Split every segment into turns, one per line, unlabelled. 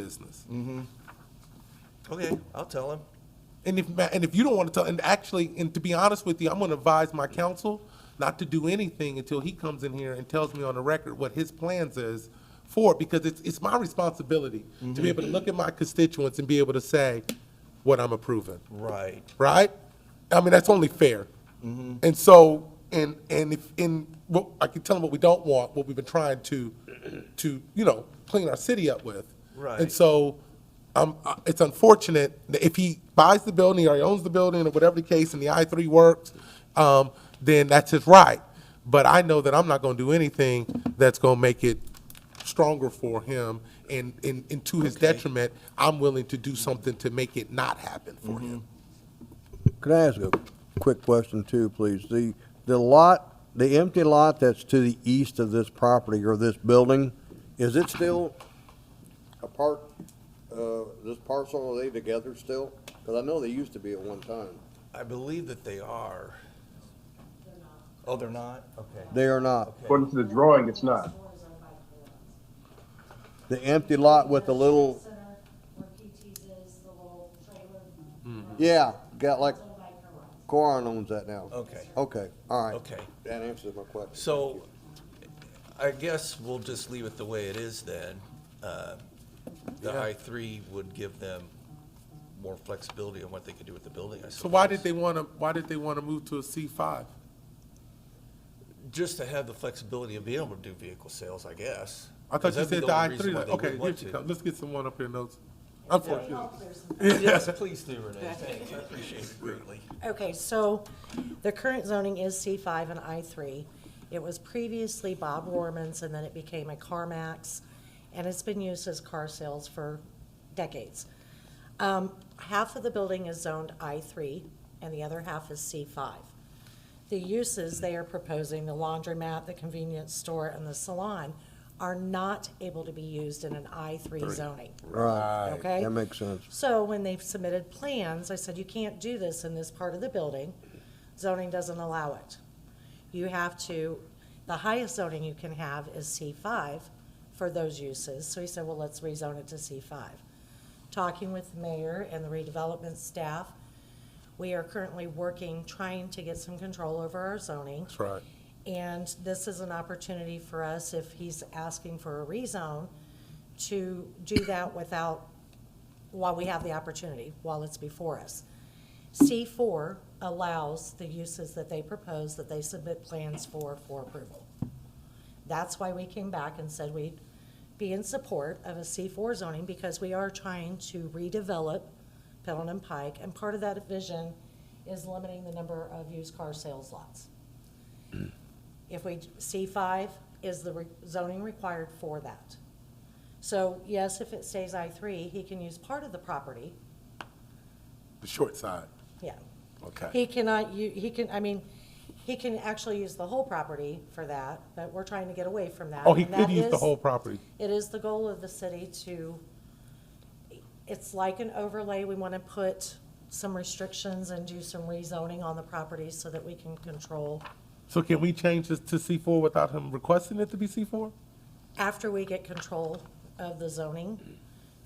business.
Okay, I'll tell him.
And if, ma- and if you don't want to tell, and actually, and to be honest with you, I'm going to advise my counsel not to do anything until he comes in here and tells me on the record what his plans is for it, because it's, it's my responsibility to be able to look at my constituents and be able to say what I'm approving,
Right.
right? I mean, that's only fair. And so, and, and if, and, well, I can tell them what we don't want, what we've been trying to, to, you know, clean our city up with.
Right.
And so, um, uh, it's unfortunate that if he buys the building or he owns the building or whatever the case and the I three works, um, then that's his right. But I know that I'm not gonna do anything that's gonna make it stronger for him and, and, and to his detriment, I'm willing to do something to make it not happen for him.
Can I ask a quick question too, please? The, the lot, the empty lot that's to the east of this property or this building, is it still a part, uh, this parcel, are they together still? Because I know they used to be at one time.
I believe that they are. Oh, they're not? Okay.
They are not.
According to the drawing, it's not.
The empty lot with the little,
Center, where PT's is, the little trailer.
yeah, got like,
Owned by Carruthers.
Corin owns that now.
Okay.
Okay, all right.
Okay.
That answers my question.
So I guess we'll just leave it the way it is then. Uh, The I three would give them more flexibility on what they could do with the building, I suppose.
So why did they wanna, why did they wanna move to a C five?
Just to have the flexibility of being able to do vehicle sales, I guess.
I thought you
Because that'd be
said
the
the I
only
three,
reason why they
okay,
would
here
want
she
to.
comes, let's get someone up here notes. Unfortunately.
Oh, there's-
Yes, please do, Renee. Thank you. I appreciate it greatly.
Okay, so the current zoning is C5 and I3. It was previously Bob Warman's, and then it became a CarMax, and it's been used as car sales for decades. Um, Half of the building is zoned I3, and the other half is C5. The uses they are proposing, the laundromat, the convenience store, and the salon, are not able to be used in an I3 zoning.
Right.
Okay.
That makes sense.
So when they submitted plans, I said, you can't do this in this part of the building. Zoning doesn't allow it. You have to, the highest zoning you can have is C5 for those uses. So he said, well, let's rezone it to C5. Talking with the mayor and the redevelopment staff, we are currently working, trying to get some control over our zoning.
That's right.
And this is an opportunity for us, if he's asking for a rezone, to do that without, while we have the opportunity, while it's before us. C4 allows the uses that they propose, that they submit plans for, for approval. That's why we came back and said we'd be in support of a C4 zoning, because we are trying to redevelop Pendleton Pike, and part of that vision is limiting the number of used car sales lots. If we, C5 is the re- zoning required for that. So yes, if it stays I3, he can use part of the property,
The short side,
yeah.
okay.
He cannot, u- he can, I mean, he can actually use the whole property for that, but we're trying to get away from that.
Oh, he
and that
could use the
is-
whole property.
It is the goal of the city to, it's like an overlay, we want to put some restrictions and do some rezoning on the property so that we can control
So can we change this to C four without him requesting it to be C four?
after we get control of the zoning,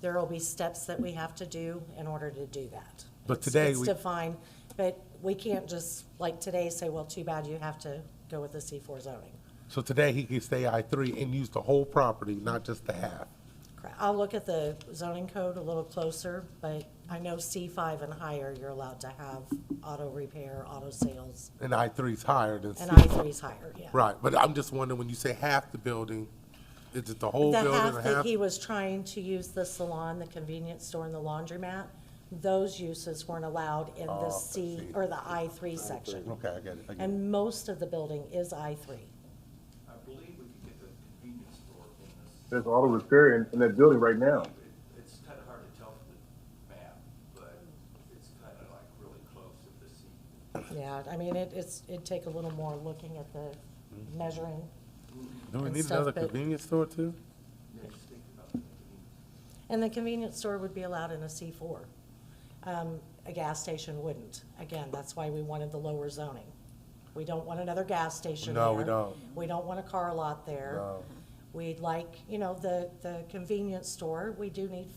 there will be steps that we have to do in order to do that.
But
It's-
today
It's
we-
defined, but we can't just, like today, say, well, too bad, you have to go with the C4 zoning.
So today he can stay I three and use the whole property, not just the half.
Correct. I'll look at the zoning code a little closer, but I know C5 and higher, you're allowed to have auto repair, auto sales,
And I three's higher than C.
and I3 is higher, yeah.
Right, but I'm just wondering, when you say half the building, is it the whole
The
building or
half that
half?
he was trying to use the salon, the convenience store, and the laundromat, those uses weren't allowed in the C, or the Oh, I three section.
Okay, I get it, I get it.
And most of the building is I three.
I believe we could get the convenience store in this.
There's auto repair in, in that building right now.
It- It's kind of hard to tell from the map, but it's kind of like really close if the C
Yeah, I mean, it, it's, it'd take a little more looking at the Mm-hmm. measuring.
Do we
and
need
stuff,
another
but-
convenience store too?
And the convenience store would be allowed in a C four. Um, a gas station wouldn't. Again, that's why we wanted the lower zoning. We don't want another gas station
No, we
there.
don't.
We don't want a car lot there.
No.
We'd like, you know, the, the convenience store, we do need